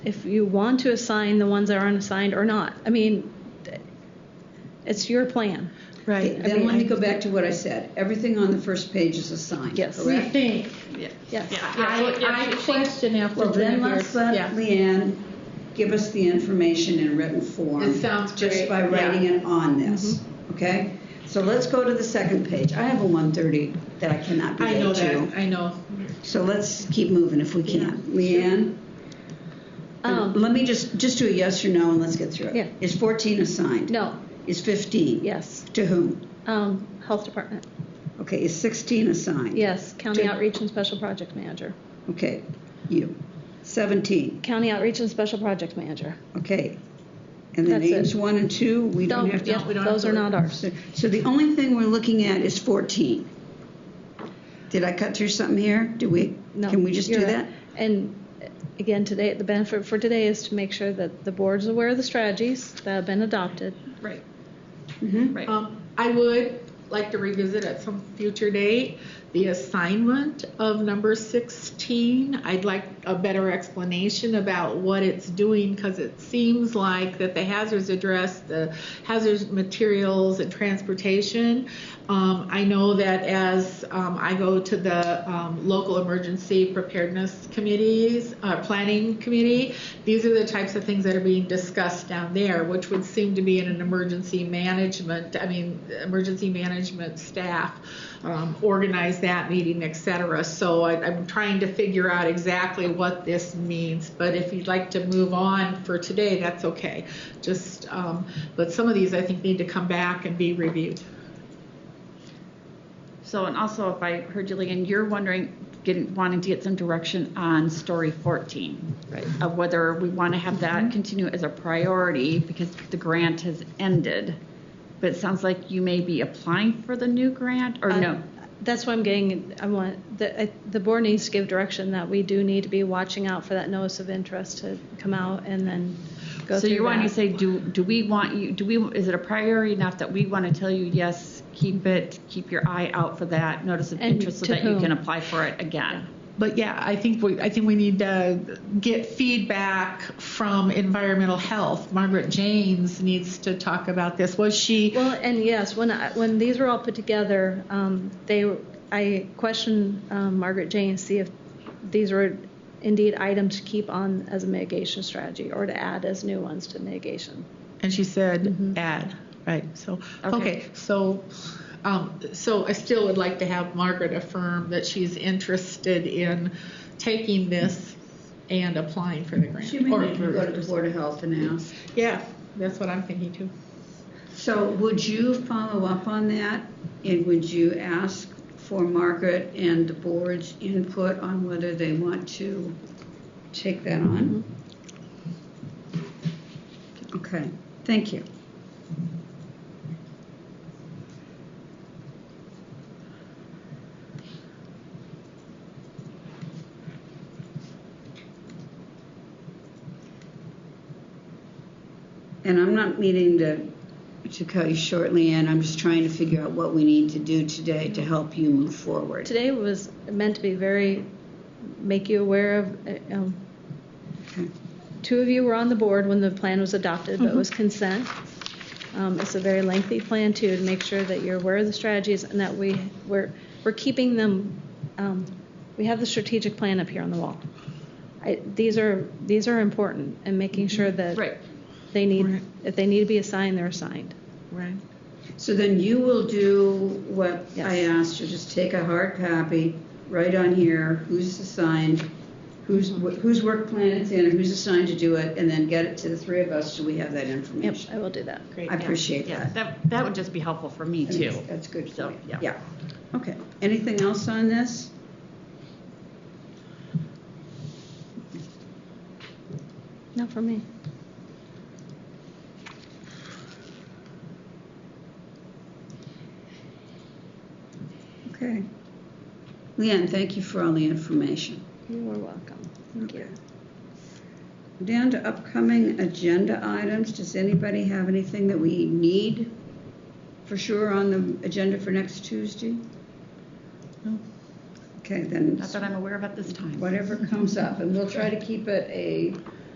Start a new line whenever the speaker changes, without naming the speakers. if you want to assign the ones that are unassigned or not. I mean, it's your plan.
Right.
I mean,
Then let me
I-
go back to what I said. Everything on the first page is assigned,
Yes.
We
correct?
think.
Yes.
I, I question after
Well, then
doing
let's
this.
let
Yeah.
Leanne give us the information in written form.
It sounds
Just
great.
by writing
Yeah.
it on this,
Mm-hmm.
okay? So let's go to the second page. I have a 130 that I cannot be
I know
late to.
that, I know.
So let's keep moving if we can. Leanne?
Um,
Let me just, just do a yes or no and let's get through it.
Yeah.
Is 14 assigned?
no,
Is 15?
yes.
To whom?
Um, health department,
Okay, is 16 assigned?
yes. County
Good.
outreach and special project manager.
Okay, you. 17,
County outreach and special project manager.
okay. And the
That's it.
names one and two, we don't
Don't-
have
yeah,
to.
we don't have
those
to-
are not ours.
So- So the only thing we're looking at is 14. Did I cut through something here? Do we,
No,
can we just do
you're
that?
right. And uh, again, today, the benefit for today is to make sure that the board's aware of the strategies that have been adopted.
Right.
Mhm.
Right.
Um, I would like to revisit at some future date the assignment of number 16. I'd like a better explanation about what it's doing because it seems like that the hazards address, the hazards materials and transportation. Um, I know that as um, I go to the um, local emergency preparedness committees, uh, planning committee, these are the types of things that are being discussed down there, which would seem to be in an emergency management, I mean, emergency management staff um, organize that meeting, et cetera. So I, I'm trying to figure out exactly what this means, but if you'd like to move on for today, that's okay. Just, um, but some of these I think need to come back and be reviewed.
So, and also, if I heard you, Leanne, you're wondering, getting, wanting to get some direction on story 14.
Right. Mm-hmm.
Of whether we want to have that continue as a priority because the grant has ended. But it sounds like you may be applying for the new grant, or
I-
no?
Um, That's why I'm getting, I want, the, I- the board needs to give direction that we do need to be watching out for that notice of interest to come out and then go through
So you're wanting to
that.
say, do, do we want you, do we, is it a priority enough that we want to tell you, yes, keep it, keep your eye out for that notice of
And
interest so
to
that you
whom?
can apply for it again?
But yeah, I think we I think we need to get feedback from environmental health. Margaret Janes needs to talk about this. Was she
Well, and yes, when I, when these were all put together, um, they, I questioned um, Margaret Jane to see if these were indeed items to keep on as a mitigation strategy or to add as new ones to mitigation.
and she said
Mm-hmm.
add, right? So okay,
Okay.
so um, so I still would like to have Margaret affirm that she's interested in taking this and applying for the grant.
She may
Or-
need to go to the Board of Health and ask.
yeah, that's what I'm thinking too.
So would you follow up on that? And would you ask for Margaret and the board's input on whether they want to take that on? Okay, thank you. And I'm not meaning to, to cut you shortly, and I'm just trying to figure out what we need to do today to help you move forward.
Today was meant to be very, make you aware of, uh, um,
Okay.
two of you were on the board when the plan was adopted, but it was consent. Um, It's a very lengthy plan too, to make sure that you're aware of the strategies and that we, we're, we're keeping them, um, we have the strategic plan up here on the wall. I- These are, these are important and making sure that
Right.
they need,
Right.
if they need to be assigned, they're assigned.
Right.
So then you will do what I
Yes.
asked you, just take a hard copy, write on here who's assigned, whose,
Mm-hmm.
whose work plan it's in, and who's assigned to do it, and then get it to the three of us so we have that
Yep,
information.
I will do that.
Great.
I
yeah,
appreciate
yeah.
that.
That, that would just be helpful for me
I mean,
too.
That's good
So,
for you.
yeah.
Yeah, okay. Anything else on this?
Not for me.
Okay. Leanne, thank you for all the information.
You are welcome. Thank you.
Down to upcoming agenda items, does anybody have anything that we need for sure on the agenda for next Tuesday?
No.
Okay, then
Not that I'm aware of at this time.
whatever comes up, and we'll try to keep it a